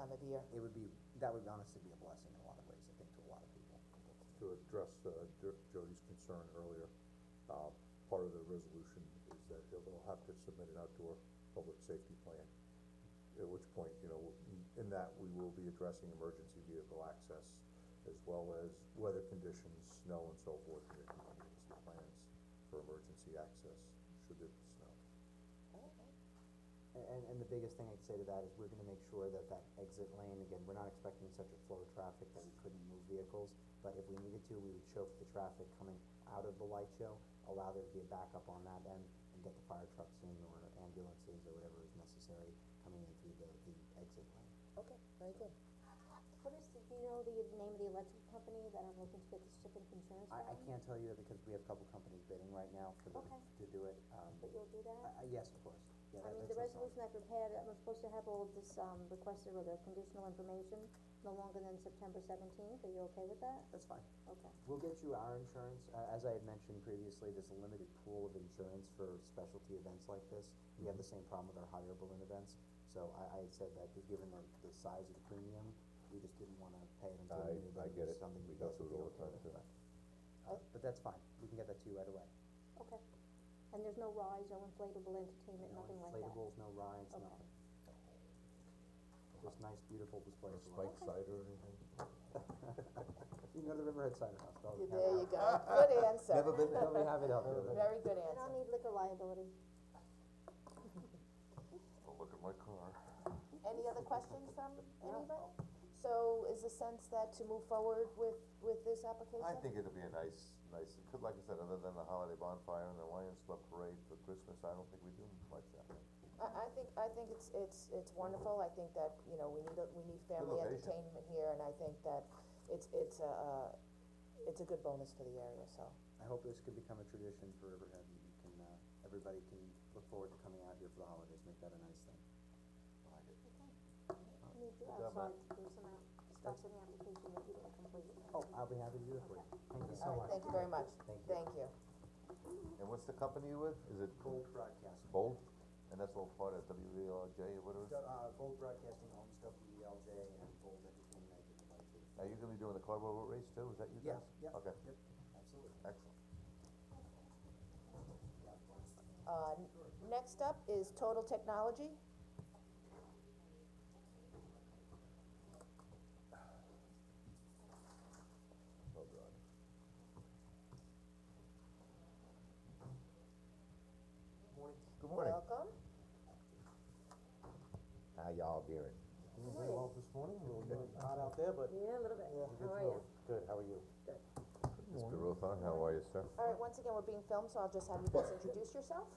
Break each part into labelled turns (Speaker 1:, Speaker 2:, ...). Speaker 1: of year.
Speaker 2: It would be, that would honestly be a blessing in a lot of ways, I think, to a lot of people.
Speaker 3: to address uh, Jo- Jody's concern earlier, uh, part of the resolution is that they'll they'll have to submit an outdoor public safety plan, at which point, you know, in that, we will be addressing emergency vehicle access as well as weather conditions, snow and so forth, and the contingency plans for emergency access, should there be snow.
Speaker 2: A- And, and the biggest thing I'd say to that is we're gonna make sure that that exit lane, again, we're not expecting such a flow of traffic that we couldn't move vehicles, but if we needed to, we would choke the traffic coming out of the light show, allow there to be a backup on that end, and get the fire trucks in or ambulances or whatever is necessary coming in through the, the exit lane.
Speaker 1: Okay, very good.
Speaker 4: What is, the- do you know the name of the electric company that I'm looking to get the shipping insurance
Speaker 2: I, I
Speaker 4: from?
Speaker 2: can't tell you that because we have a couple companies bidding right now for the,
Speaker 4: Okay.
Speaker 2: to do it, um,
Speaker 4: But you'll do
Speaker 2: I,
Speaker 4: that?
Speaker 2: I, yes, of course, yeah,
Speaker 4: I
Speaker 2: that-
Speaker 4: mean,
Speaker 2: that's
Speaker 4: the
Speaker 2: not something-
Speaker 4: resolution I prepared, I'm supposed to have all of this, um, requested or the conditional information, no longer than September seventeenth, are you okay with that?
Speaker 2: That's fine.
Speaker 4: Okay.
Speaker 2: We'll get you our insurance, uh, as I had mentioned previously, there's a limited pool of insurance for specialty events like this. We have the same problem with our hot air balloon events, so I, I had said that, just given the, the size of the premium, we just didn't wanna pay it until
Speaker 3: I-
Speaker 2: we knew
Speaker 3: I
Speaker 2: that
Speaker 3: get
Speaker 2: it was
Speaker 3: it.
Speaker 2: something
Speaker 3: We
Speaker 2: we
Speaker 3: go
Speaker 2: guys
Speaker 3: through it all the
Speaker 2: would be okay
Speaker 3: time,
Speaker 2: with,
Speaker 3: too.
Speaker 2: but. uh, But that's fine, we can get that to you right away.
Speaker 4: Okay, and there's no rides, no inflatable entertainment,
Speaker 2: No
Speaker 4: nothing like that?
Speaker 2: inflatables, no rides,
Speaker 4: Okay.
Speaker 2: nothing. Just nice, beautiful displays. of lights.
Speaker 3: Spike side or anything?
Speaker 2: You can go to the Riverhead Cider House, they'll have
Speaker 1: There you
Speaker 2: it.
Speaker 1: go, good answer,
Speaker 2: Never been, there. they'll have it out there.
Speaker 1: very good
Speaker 4: I don't
Speaker 1: answer.
Speaker 4: need liquor liability.
Speaker 3: Oh, look at my car.
Speaker 1: Any other questions from anybody? So is the sense that to move forward with, with this application?
Speaker 3: I think it'll be a nice, nice, it could, like I said, other than the holiday bonfire and the Lions Club parade for Christmas, I don't think we do much that.
Speaker 1: I, I think, I think it's, it's, it's wonderful, I think that, you know, we need, a- we need family
Speaker 3: location.
Speaker 1: entertainment here, and I think that it's, it's a, uh, it's a good bonus for the area, so.
Speaker 2: I hope this could become a tradition for Riverhead, and you can, uh, everybody can look forward to coming out here for the holidays, make that a nice thing.
Speaker 4: I need you,
Speaker 3: job,
Speaker 4: I'm sorry, to do some, out- discuss any application that you didn't complete.
Speaker 2: Oh, I'll be happy to do it for you, thank you so
Speaker 1: All right,
Speaker 2: much.
Speaker 1: thank you very much,
Speaker 2: Thank you.
Speaker 1: thank you.
Speaker 3: And what's the company you with? Is it
Speaker 2: Gold Broadcasting,
Speaker 3: Bold? And that's all part of WVLJ or whatever? it is?
Speaker 2: uh, Gold Broadcasting owns WELJ and Gold Entertainment and Devices.
Speaker 3: Are you gonna be doing the cardboard boat race too? Is that you
Speaker 2: Yeah,
Speaker 3: guys?
Speaker 2: yeah,
Speaker 3: Okay,
Speaker 2: yep, absolutely,
Speaker 3: excellent.
Speaker 2: yeah.
Speaker 1: Uh, n- next up is Total Technology.
Speaker 3: Oh, God.
Speaker 2: Morning.
Speaker 3: Good morning.
Speaker 1: Welcome.
Speaker 3: How y'all doing?
Speaker 2: Doing very well this morning, a little bit hot out there, but.
Speaker 5: Yeah, a little bit. How are you?
Speaker 2: Good, how are you?
Speaker 3: Mr. Ruthan, how are you, sir?
Speaker 1: All right, once again, we're being filmed, so I'll just have you guys introduce yourself.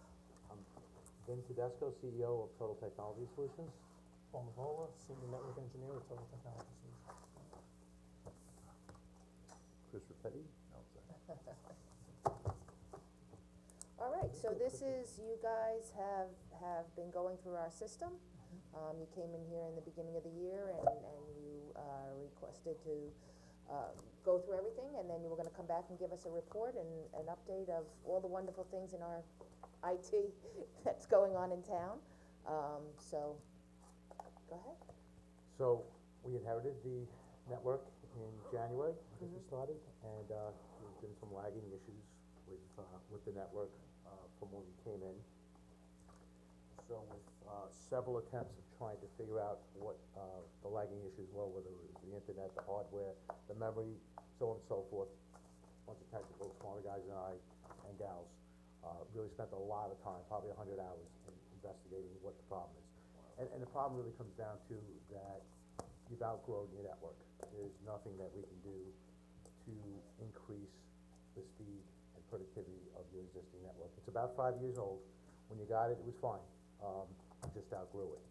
Speaker 2: Vin Tedesco, CEO of Total Technology Solutions.
Speaker 6: Paul Mavola, Senior Network Engineer with Total Technology Solutions.
Speaker 3: Chris Repetti? No, I'm sorry.
Speaker 1: All right, so this is, you guys have, have been going through our system. Um, you came in here in the beginning of the year and, and you, uh, requested to, uh, go through everything, and then you were gonna come back and give us a report and an update of all the wonderful things in our IT that's going on in town. Um, so, go ahead.
Speaker 5: So, we inherited the network in January, I think we started, and, uh, there's been some lagging issues with, uh, with the network, uh, from when we came in. So with, uh, several attempts of trying to figure out what, uh, the lagging issues were, whether it was the internet, the hardware, the memory, so on and so forth. Bunch of technical, smarter guys than I, and gals, uh, really spent a lot of time, probably a hundred hours in investigating what the problem is. And, and the problem really comes down to that you've outgrown your network. There's nothing that we can do to increase the speed and productivity of your existing network. It's about five years old. When you got it, it was fine. Um, you just outgrew it.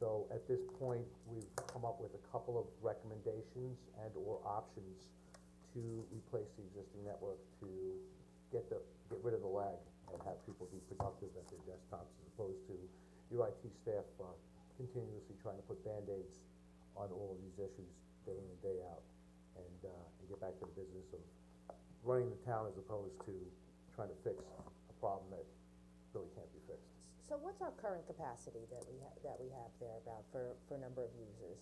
Speaker 5: So at this point, we've come up with a couple of recommendations and or options to replace the existing network to get the, get rid of the lag and have people be productive at their desktops as opposed to your IT staff, uh, continuously trying to put Band-Aids on all of these issues day in and day out and, uh, and get back to the business of running the town as opposed to trying to fix a problem that really can't be fixed.
Speaker 1: So what's our current capacity that we ha- that we have there about for, for number of users?